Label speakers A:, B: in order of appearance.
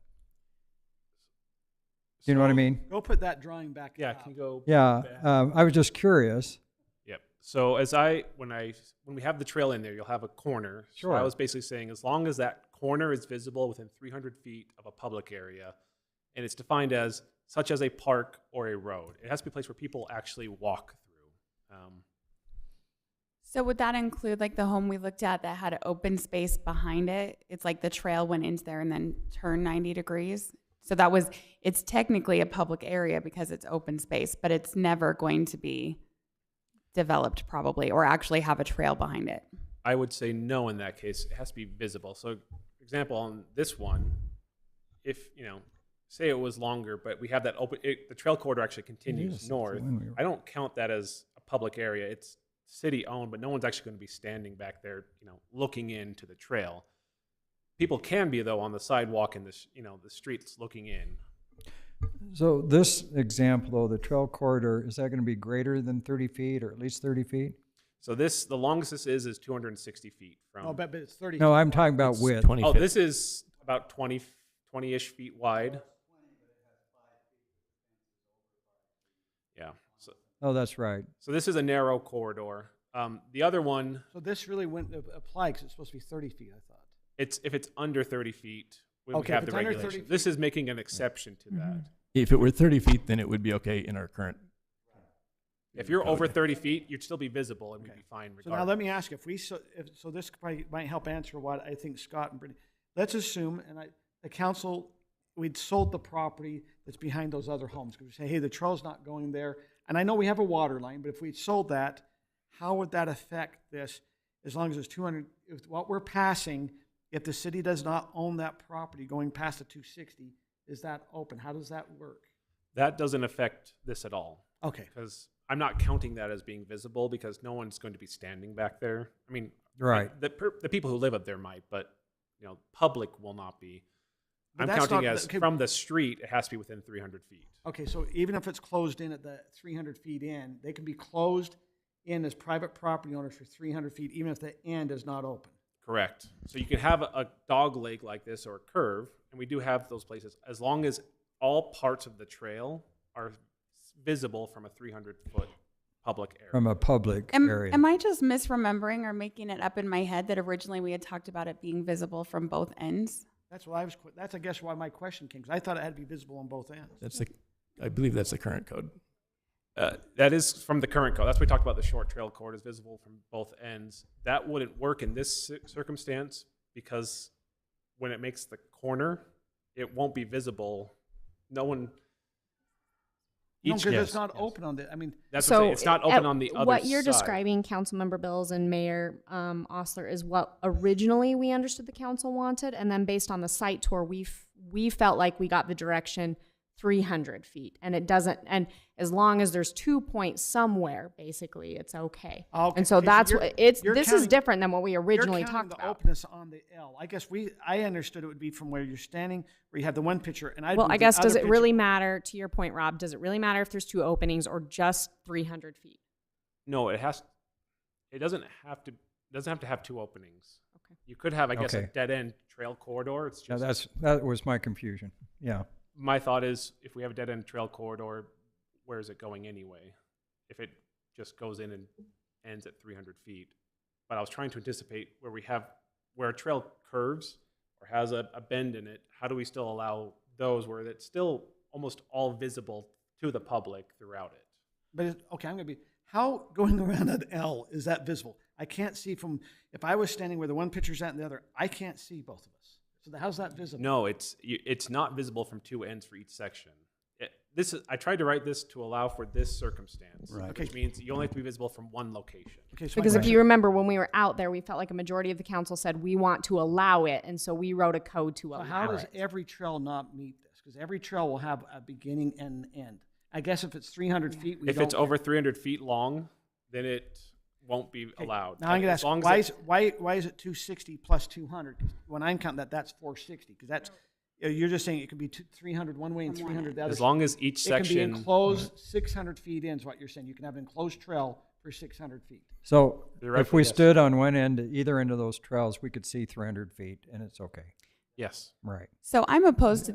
A: You know what I
B: So,
A: mean?
C: Go put that drawing back
B: Yeah,
C: up.
B: can go.
A: Yeah,
B: back.
A: um, I was just curious.
B: Yep. So as I when I when we have the trail in there, you'll have a corner. So I
A: Sure.
B: was basically saying as long as that corner is visible within 300 feet of a public area, and it's defined as such as a park or a road, it has to be a place where people actually walk through. Um,
D: So would that include like the home we looked at that had an open space behind it? It's like the trail went into there and then turned 90 degrees. So that was it's technically a public area because it's open space, but it's never going to be developed probably or actually have a trail behind it.
B: I would say no in that case. It has to be visible. So, for example, on this one, if you know, say it was longer, but we have that open, it, the trail corridor actually continues
A: Yes, it's the
B: north.
A: one we were-
B: I don't count that as a public area. It's city owned, but no one's actually going to be standing back there, you know, looking into the trail. People can be though on the sidewalk and the s- you know the streets looking in.
A: So this example, though, the trail corridor, is that going to be greater than 30 feet or at least 30 feet?
B: So this the longest this is is 260 feet from.
C: No, Oh, but, but it's 30.
A: No, I'm talking about width.
B: oh, this is about 20 20-ish feet wide. Yeah. So,
A: Oh, that's right.
B: so this is a narrow corridor. Um, the other one,
C: So this really wouldn't ap- apply because it's supposed to be 30 feet, I thought.
B: it's if it's under 30 feet, we would
C: Okay, if
B: have the
C: it's under Mm-hmm. 30
B: regulation. This is making an exception to that.
E: If it were 30 feet, then it would be okay in our current.
B: If you're over 30 feet, you'd still be visible and we'd be fine regardless.
C: So now let me ask, you, if we, so, if, so this could probably might help answer what I think Scott and Brittany, let's assume, and I, the council, we'd sold the property that's behind those other homes, because we say, hey, the trail's not going there, and I know we have a water line, but if we sold that, how would that affect this, as long as it's two hundred, if what we're passing, if the city does not own that property going past the two sixty, is that open, how does that work?
B: that doesn't affect this at all.
C: Okay,
B: because I'm not counting that as being visible because no one's going to be standing back there. I mean,
A: Right.
B: The, per- the people who live up there might, but you know, public will not be.
C: But
B: I'm
C: that's
B: counting
C: not-
B: as
C: okay.
B: from the street. It has to be within 300 feet.
C: Okay, so even if it's closed in at the three hundred feet in, they can be closed in as private property owners for three hundred feet, even if the end is not open.
B: Correct. So you can have a, a dog leg like this or a curve, and we do have those places as long as all parts of the trail are visible from a 300 foot public area.
A: From a public
D: Am,
A: area.
D: am I just misremembering or making it up in my head that originally we had talked about it being visible from both ends?
C: That's what I was, que- that's I guess why my question came, because I thought it had to be visible on both ends.
E: That's the, I believe that's the current code.
B: Uh, that is from the current code. That's what we talked about. The short trail cord is visible from both ends. That wouldn't work in this ci- circumstance because when it makes the corner, it won't be visible. No one.
C: No,
B: each-
C: because it's
B: yes,
C: not
B: yes.
C: open on the, I mean,
B: That's what I'm
F: so
B: saying. It's not
F: at-
B: open on the other
F: What you're
B: side.
F: describing, Councilmember Bills and Mayor um, Osler, is what originally we understood the council wanted, and then based on the site tour, we f- we felt like we got the direction 300 feet, and it doesn't. And as long as there's two points somewhere, basically, it's okay.
C: Okay,
F: And so
C: okay, so
F: that's
C: you're-
F: what it's.
C: you're
F: This is
C: counting-
F: different than what we
C: you're
F: originally
C: counting
F: talked
C: the
F: about.
C: openness on the L. I guess we, I understood it would be from where you're standing, where you have the one picture, and I.
F: Well, I guess does it really matter? To your point, Rob, does it really matter if there's two openings or just 300 feet?
B: No, it has. It doesn't have to. Doesn't have to have two openings.
F: Okay.
B: You could have, I guess, a
A: Okay.
B: dead end trail corridor. It's
A: Yeah,
B: just
A: that's, that was my confusion. Yeah.
B: my thought is if we have a dead end trail corridor, where is it going anyway? If it just goes in and ends at 300 feet. But I was trying to anticipate where we have, where a trail curves or has a, a bend in it, how do we still allow those where it's still almost all visible to the public throughout it?
C: But it, okay, I'm gonna be how going around an L is that visible? I can't see from if I was standing where the one picture's at and the other, I can't see both of us. So how's that visible?
B: No, it's you, it's not visible from two ends for each section. It- this is, I tried to write this to allow for this circumstance,
E: Right.
B: which means you only have to be visible from one location.
C: Okay, so my
F: Because if
C: question-
F: you remember when we were out there, we felt like a majority of the council said we want to allow it, and so we wrote a code to
C: So
F: allow
C: how does
F: it.
C: every trail not meet this? Because every trail will have a beginning and an end. I guess if it's three hundred feet, we
B: if
C: don't.
B: it's over 300 feet long, then it won't be
C: Okay,
B: allowed.
C: Now I'm gonna
B: As
C: ask,
B: long as
C: why
B: it-
C: is, why, why is it two sixty plus two hundred? When I'm counting that, that's four sixty, because that's, you're just saying it could be two, three hundred one way and three hundred the other.
B: As long as each
C: It can be
B: section,
C: enclosed six hundred feet in is what you're saying. You can have an enclosed trail for six hundred feet.
A: So if
B: Theoretically,
A: we
B: yes.
A: stood on one end, either end of those trails, we could see 300 feet and it's okay.
B: yes.
A: Right.
D: So I'm opposed to